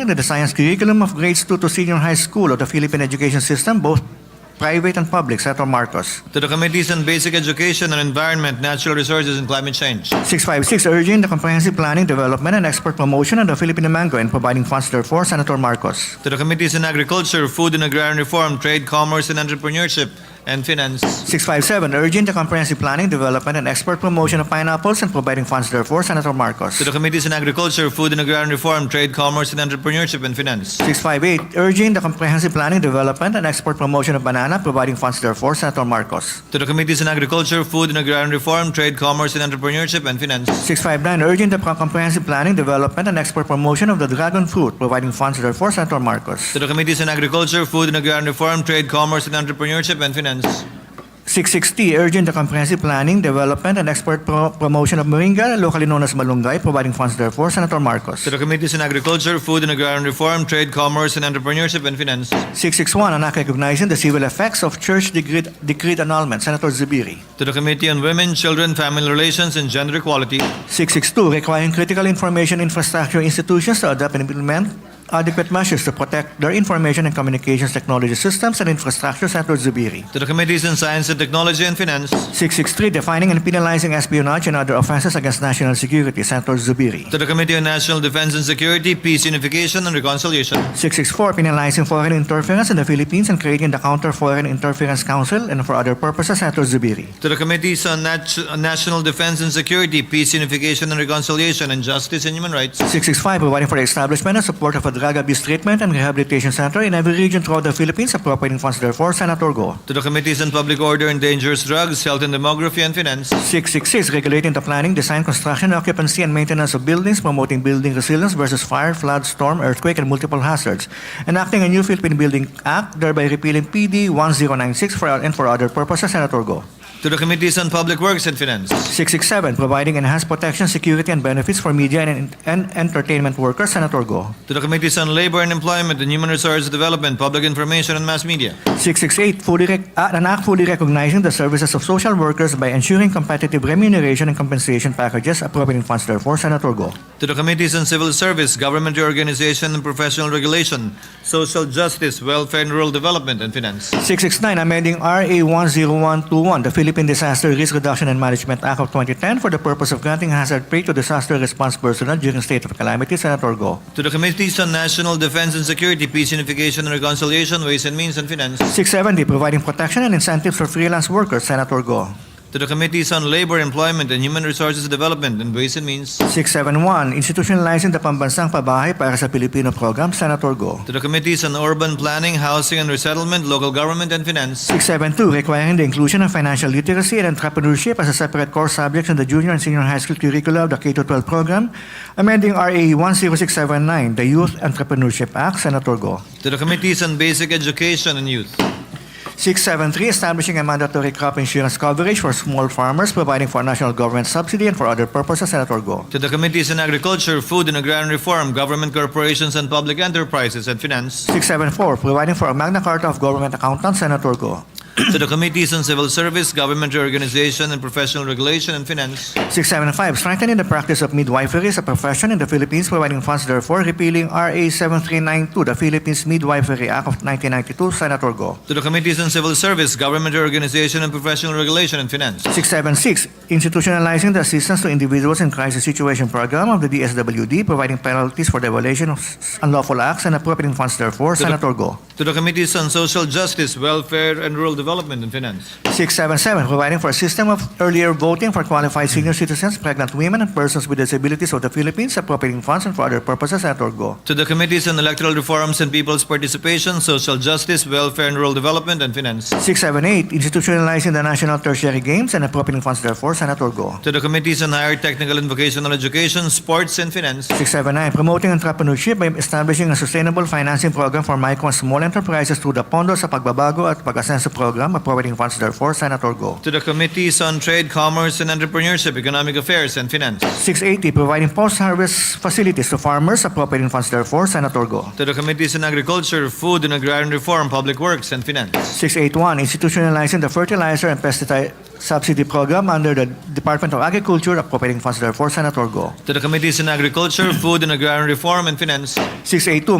Under the science curriculum of grades 2 to senior high school of the Philippine education system, both private and public, Senator Marcos. To the Committees on Basic Education and Environment, Natural Resources and Climate Change. 656, urging the comprehensive planning, development, and export promotion of the Philippine mango and providing funds therefore, Senator Marcos. To the Committees on Agriculture, Food and Agrarian Reform, Trade, Commerce and Entrepreneurship, and Finance. 657, urging the comprehensive planning, development, and export promotion of pineapples and providing funds therefore, Senator Marcos. To the Committees on Agriculture, Food and Agrarian Reform, Trade, Commerce and Entrepreneurship, and Finance. 658, urging the comprehensive planning, development, and export promotion of banana, providing funds therefore, Senator Marcos. To the Committees on Agriculture, Food and Agrarian Reform, Trade, Commerce and Entrepreneurship, and Finance. 659, urging the comprehensive planning, development, and export promotion of the dragon fruit, providing funds therefore, Senator Marcos. To the Committees on Agriculture, Food and Agrarian Reform, Trade, Commerce and Entrepreneurship, and Finance. 660, urging the comprehensive planning, development, and export pro- promotion of moringa, locally known as malunggay, providing funds therefore, Senator Marcos. To the Committees on Agriculture, Food and Agrarian Reform, Trade, Commerce and Entrepreneurship, and Finance. 661, an act recognizing the civil effects of church decree decreed annulment, Senator Zubiri. To the Committee on Women, Children, Family Relations and Gender Equality. 662, requiring critical information infrastructure institutions to adopt and implement adequate measures to protect their information and communications technology systems and infrastructure, Senator Zubiri. To the Committees on Science and Technology and Finance. 663, defining and penalizing espionage and other offenses against national security, Senator Zubiri. To the Committee on National Defense and Security, Peace, Unification, and Reconciliation. 664, penalizing foreign interference in the Philippines and creating the Counter Foreign Interference Council and for other purposes, Senator Zubiri. To the Committees on Nat- on National Defense and Security, Peace, Unification, and Reconciliation, and Justice and Human Rights. 665, providing for the establishment and support of a drug abuse treatment and rehabilitation center in every region throughout the Philippines, appropriating funds therefore, Senator Go. To the Committees on Public Order and Dangerous Drugs, Health and Demography, and Finance. 666, regulating the planning, design, construction, occupancy, and maintenance of buildings, promoting building resilience versus fire, flood, storm, earthquake, and multiple hazards, enacting a new Philippine Building Act, thereby repealing PD 1096 for, and for other purposes, Senator Go. To the Committees on Public Works and Finance. 667, providing enhanced protection, security, and benefits for media and, and entertainment workers, Senator Go. To the Committees on Labor and Employment and Human Resource Development, Public Information, and Mass Media. 668, fully rec- uh, an act fully recognizing the services of social workers by ensuring competitive remuneration and compensation packages, appropriating funds therefore, Senator Go. To the Committees on Civil Service, Government Reorganization and Professional Regulation, Social Justice, Welfare and Rural Development, and Finance. 669, amending RA 10121, the Philippine Disaster Risk Reduction and Management Act of 2010 for the purpose of granting hazard pay to disaster response personnel during state of calamity, Senator Go. To the Committees on National Defense and Security, Peace, Unification, and Reconciliation, Ways and Means, and Finance. 670, providing protection and incentives for freelance workers, Senator Go. To the Committees on Labor, Employment, and Human Resources Development, and Ways and Means. 671, institutionalizing the pambansang pabahay para sa Pilipino program, Senator Go. To the Committees on Urban Planning, Housing and Resettlement, Local Government, and Finance. 672, requiring the inclusion of financial literacy and entrepreneurship as a separate core subject in the junior and senior high school curricula of the K-12 program, amending RA 10679, the Youth Entrepreneurship Act, Senator Go. To the Committees on Basic Education and Youth. 673, establishing a mandatory crop insurance coverage for small farmers, providing for national government subsidy and for other purposes, Senator Go. To the Committees on Agriculture, Food and Agrarian Reform, Government Corporations and Public Enterprises, and Finance. 674, providing for a Magna Carta of Government Accountants, Senator Go. to the Committees on Civil Service, Government Reorganization and Professional Regulation, and Finance. 675, strengthening the practice of midwifery as a profession in the Philippines, providing funds therefore, repealing RA 7392, the Philippines Midwifery Act of 1992, Senator Go. To the Committees on Civil Service, Government Reorganization and Professional Regulation, and Finance. 676, institutionalizing the assistance to individuals in crisis situation program of the DSWD, providing penalties for the violation of s- unlawful acts and appropriating funds therefore, Senator Go. To the Committees on Social Justice, Welfare and Rural Development, and Finance. 677, providing for a system of earlier voting for qualified senior citizens, pregnant women, and persons with disabilities of the Philippines, appropriating funds and for other purposes, Senator Go. To the Committees on Electoral Reforms and People's Participation, Social Justice, Welfare and Rural Development, and Finance. 678, institutionalizing the national tertiary games and appropriating funds therefore, Senator Go. To the Committees on Higher Technical and Vocational Education, Sports, and Finance. 679, promoting entrepreneurship by establishing a sustainable financing program for micro and small enterprises through the Pondo sa Pagbabago at Pag-asenso program Program, appropriating funds therefore. Senator Go. To the Committees on Trade, Commerce, and Entrepreneurship, Economic Affairs, and Finance. 680, providing post-harvest facilities to farmers, appropriating funds therefore. Senator Go. To the Committees on Agriculture, Food and Agrarian Reform, Public Works, and Finance. 681, institutionalizing the fertilizer and pesticide subsidy program under the Department of Agriculture, appropriating funds therefore. Senator Go. To the Committees on Agriculture, Food and Agrarian Reform, and Finance. 682,